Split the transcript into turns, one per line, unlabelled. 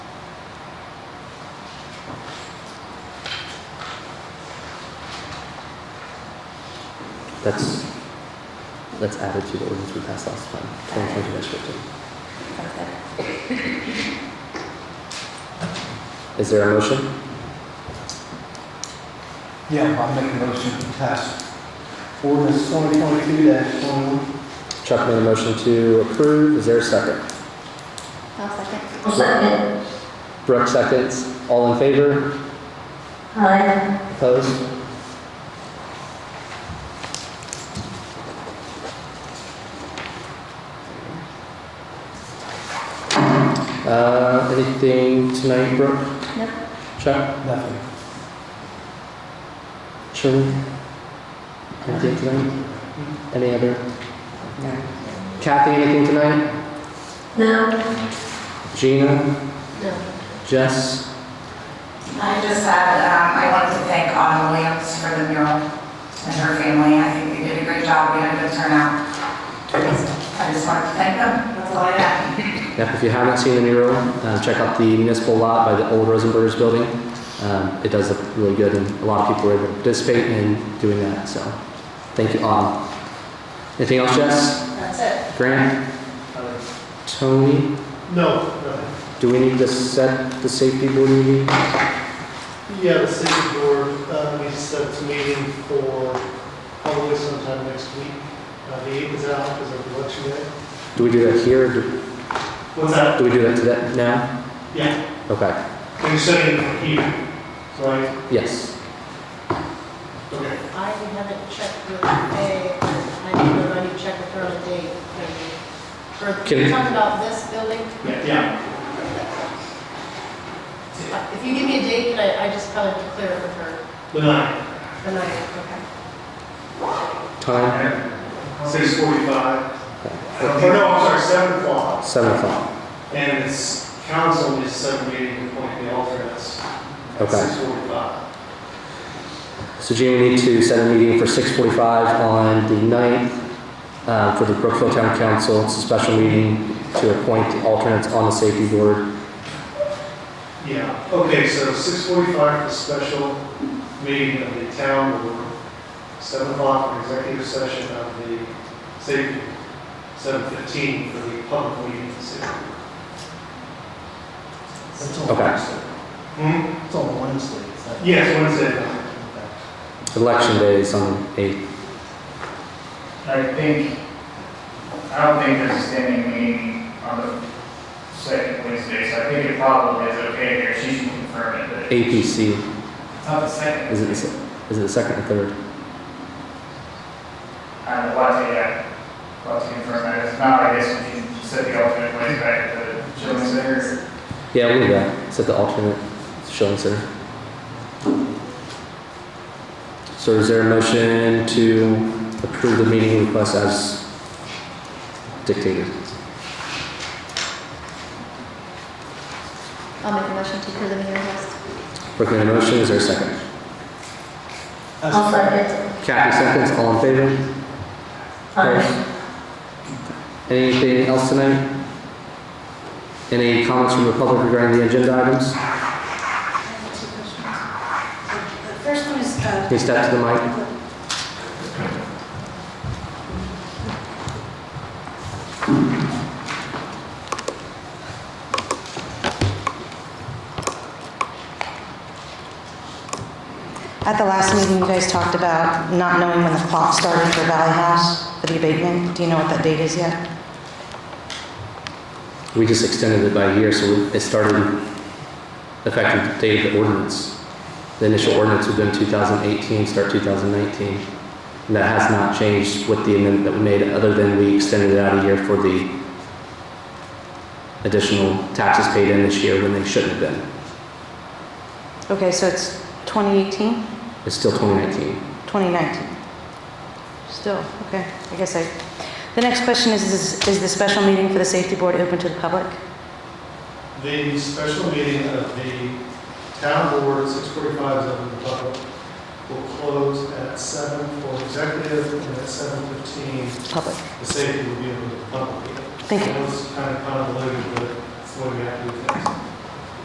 That's, that's added to the ordinance we passed last time, twenty twenty fifteen. Is there a motion?
Yeah, I'll make a motion to pass ordinance twenty twenty-two dash twenty-one.
Chuck made a motion to approve, is there a second?
I'll second.
Second.
Brooke seconds, all in favor,
Aye.
opposed? Uh, anything tonight, Brooke?
Nope.
Chuck,
Nothing.
Sherman? Anything tonight? Any other? Kathy, anything tonight?
No.
Gina?
No.
Jess?
I just said, um, I wanted to thank Autumn Williams for the mural and her family. I think they did a great job. We had a good turnout. I just wanted to thank them. That's all I have.
Yep, if you haven't seen the mural, uh, check out the municipal lot by the old Rosenbergers building. Um, it does look really good, and a lot of people were able to participate in doing that. So, thank you all. Anything else, Jess? That's it. Grant, Tony,
No, no.
do we need to set the safety board meeting?
Yeah, the city board, uh, we set its meeting for probably sometime next week. Uh, the eighth is out because of election day.
Do we do that here? Or do,
What's that?
do we do that today now?
Yeah,
Okay.
you're setting it here, right?
Yes.
Okay.
I haven't checked with Faye, I need to already check with her on a date. For,
Can-
you're talking about this building?
Yeah, yeah.
If you give me a date, then I, I just kind of clear it with her,
The ninth,
and I, okay.
Time
six forty-five.
Okay.
Or no, I'm sorry, seven o'clock.
seven o'clock.
And it's council is set a meeting to appoint the alternates. at
Okay.
Six forty-five.
So Gina, we need to set a meeting for 6:45 on the 9th uh, for the Brookfield Town Council. It's a special meeting to appoint the alternates on the safety board.
Yeah, okay, so six forty-five for special meeting of the town board, seven o'clock for executive session of the safety, seven fifteen for the public meeting of the city.
That's on
Okay.
Wednesday.
Hmm?
It's on Wednesday. is that-
Yes, Wednesday.
Okay.
Election day is on 8th.
I think, I don't think there's a standing meeting on the second Wednesday, so I think it probably is okay here, she can confirm it, but
APC,
it's not the second.
is it the se- is it the second or third?
I'm allowed to, yeah, allowed to confirm that, it's not, I guess, we can set the alternate way back to the children's center.
Yeah, we'll do that. Set the alternate Shilling Center. So is there a motion to approve the meeting request as dictated?
I'll make a motion to approve the meeting request.
Brooke made a motion, is there a second?
I'll second.
Kathy seconds, all in favor?
Aye.
Anything else tonight? Any comments from the public regarding the agenda items?
The first one is, uh,
Can you step to the mic?
at the last meeting, you guys talked about not knowing when the clock started for Valley House for the abatement. Do you know what that date is yet?
We just extended it by a year, so it started effective date of the ordinance. The initial ordinance would have been 2018, start 2019. And that has not changed with the amendment that we made, other than we extended it out a year for the additional taxes paid in this year when they shouldn't have been.
Okay, so it's 2018,
It's still 2019.
2019? Still, okay, I guess I, the next question is, is is the special meeting for the safety board open to the public?
The special meeting of the town board, six forty-five, is open to the public, will close at seven for executive, and at seven fifteen,
Public,
the safety will be open to the public.
thank you.
That was kind of convoluted, but it's the way we have to do things.